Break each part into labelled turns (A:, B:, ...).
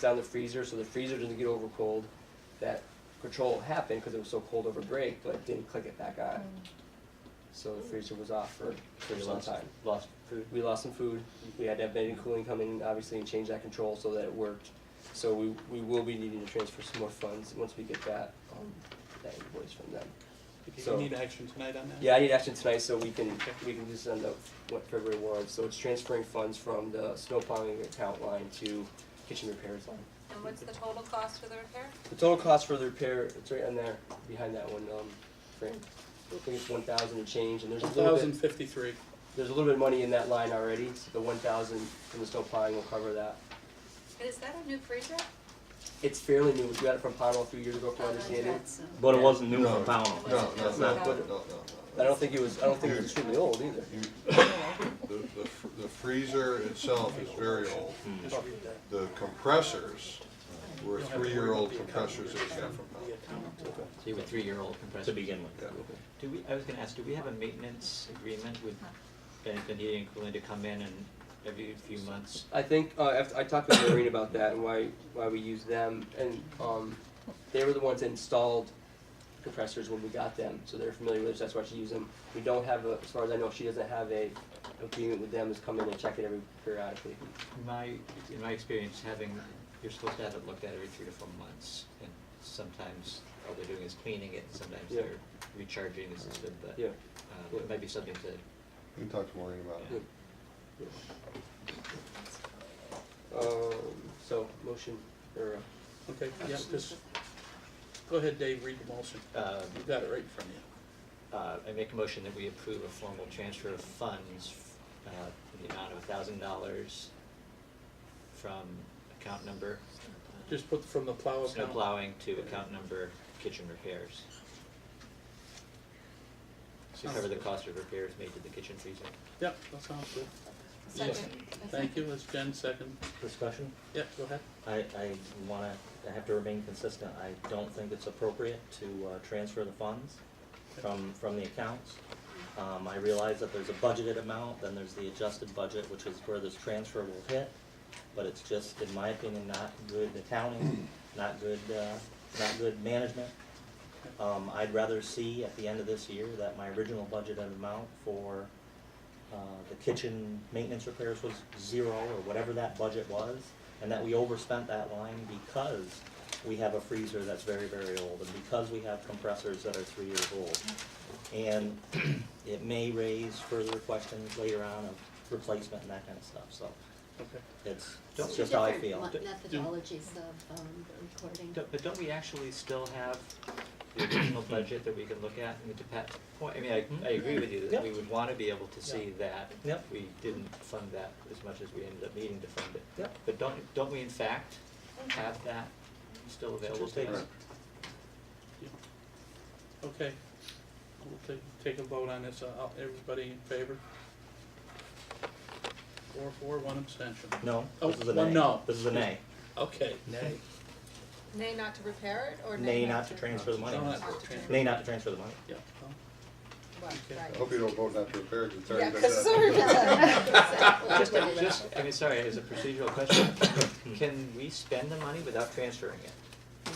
A: down the freezer, so the freezer doesn't get over cold. That control happened because it was so cold over break, but it didn't click it back on. So the freezer was off for, for
B: We
A: some
B: lost,
A: time.
B: lost food.
A: We lost some food, we had to have vending cooling come in, obviously, and change that control so that it worked. So we, we will be needing to transfer some more funds once we get that, um, that invoice from them.
C: Do
A: So-
C: you need action tonight on that?
A: Yeah, I need action tonight so we can, we can just send out what February warrants. So it's transferring funds from the snow plowing account line to kitchen repairs line.
D: And what's the total cost for the repair?
A: The total cost for the repair, it's right on there, behind that one, um, frame. I think it's one thousand and change, and there's a little
C: Thousand
A: bit,
C: fifty-three.
A: there's a little bit of money in that line already, so the one thousand from the snow plowing will cover that.
D: And Is that a new freezer?
A: It's fairly new, we got it from Pownell a few years ago, from
D: Oh,
A: my understanding.
B: But
A: Yeah.
B: it wasn't new
E: No.
B: for Pownell.
E: No, no,
D: It's
E: no,
D: not
E: no,
A: good.
E: no,
A: I
E: no.
A: don't think it was, I don't think it was extremely old either.
E: You- The, the fr- the freezer itself is very old. The compressors uh, were three-year-old compressors that we got from Bell.
F: So you have a three-year-old compressor.
B: To begin with.
E: Yeah.
F: Do we, I was gonna ask, do we have a maintenance agreement with Bennington Heating and Cooling to come in and every few months?
A: I think uh, after, I talked to Maureen about that and why why we use them, and um, they were the ones that installed compressors when we got them, so they're familiar with us. That's why she used them. We don't have, a, as far as I know, she doesn't have a agreement with them. Is come in and check it every periodically.
F: In my, in my experience, having, you're supposed to have it looked at every three to four months, and sometimes all they're doing is cleaning it, and sometimes
A: Yeah.
F: they're recharging the system, but
A: Yeah.
F: uh, it might be something to,
E: We talked to Maureen about
A: Yeah.
E: it.
A: Um, so motion or uh,
C: Okay, yeah, just, go ahead, Dave, read the motion.
F: uh,
C: You've got it right from you.
F: Uh, I make a motion that we approve a formal transfer of funds, uh, in the amount of a thousand dollars from account number. uh,
C: Just put from the plow
F: Snow
C: account.
F: plowing to account number kitchen repairs. To cover the cost of repairs made to the kitchen freezer.
C: Yep, that sounds good.
D: Second.
C: Thank you, it's Jen's second.
B: Discussion?
C: Yeah, go ahead.
B: I, I wanna, I have to remain consistent. I don't think it's appropriate to, uh, transfer the funds from, from the accounts. Um, I realize that there's a budgeted amount, then there's the adjusted budget, which is where this transfer will hit. But it's just, in my opinion, not good accounting, not good, uh, not good management. Um, I'd rather see at the end of this year that my original budgeted amount for, uh, the kitchen maintenance repairs was zero or whatever that budget was, and that we overspent that line because we have a freezer that's very, very old, and because we have compressors that are three years old. And it may raise further questions later on of replacement and that kind of stuff, so
C: Okay.
B: it's,
F: Don't-
B: it's just how I feel.
G: Different mo- methodologies of um, recording.
F: Don't- But don't we actually still have the original budget that we can look at? I mean, to Pat's point, I mean, I, I agree with you that we would wanna be able to see that.
B: Yep.
F: We didn't fund that as much as we ended up needing to fund it.
B: Yep.
F: But don't, don't we in fact have that still available to us?
E: Correct.
C: Okay. We'll take, take a vote on this. Uh, all- everybody in favor? Four, four, one abstention.
B: No,
C: Oh,
B: this is a
C: well,
B: nay.
C: no.
B: This is a nay.
C: Okay. Nay.
D: Nay not to repair it or nay
B: Nay not to transfer the money.
C: No, not to transfer.
B: Nay not to transfer the money.
C: Yeah. Oh, well,
D: Well,
E: I
D: right.
E: hope you don't vote not to repair it, 'cause it's already
D: Yeah,
E: been
D: 'cause it's
E: done.
D: already been done.
G: Exactly.
F: Just, a- just, I mean, sorry, as a procedural question, can we spend the money without transferring it?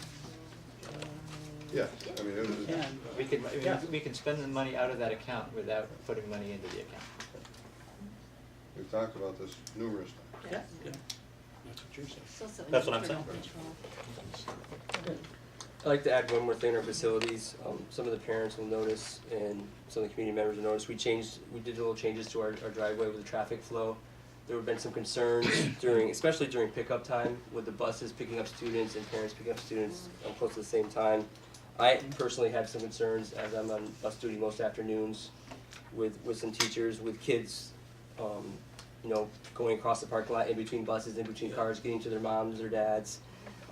E: Yeah, I mean, it was,
C: And,
F: We can, I
B: Yeah.
F: mean, we can spend the money out of that account without putting money into the account.
E: we've talked about this numerous times.
C: yeah,
G: Yes.
C: yeah.
G: It's also an
B: That's what I'm
G: internal
B: saying.
G: control.
A: I'd like to add one more thing in our facilities. Um, some of the parents will notice and some of the community members will notice, we changed, we did little changes to our, our driveway with the traffic flow. There have been some concerns during, especially during pickup time, with the buses picking up students and parents picking up students um, close to the same time. I personally have some concerns as I'm on bus duty most afternoons with, with some teachers, with kids, um, you know, going across the parking lot in between buses, in between cars, getting to their moms or dads.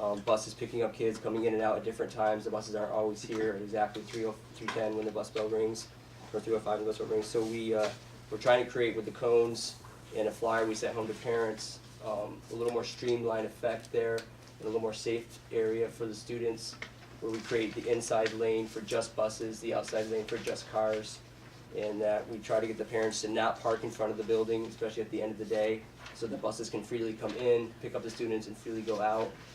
A: Um, buses picking up kids, coming in and out at different times, the buses aren't always here at exactly three oh, three ten when the bus bell rings, or three oh five when the bus bell rings, so we, uh, we're trying to create with the cones and a flyer we sent home to parents, um, a little more streamlined effect there, and a little more safe area for the students, where we create the inside lane for just buses, the outside lane for just cars, and that we try to get the parents to not park in front of the building, especially at the end of the day, so the buses can freely come in, pick up the students, and freely go out.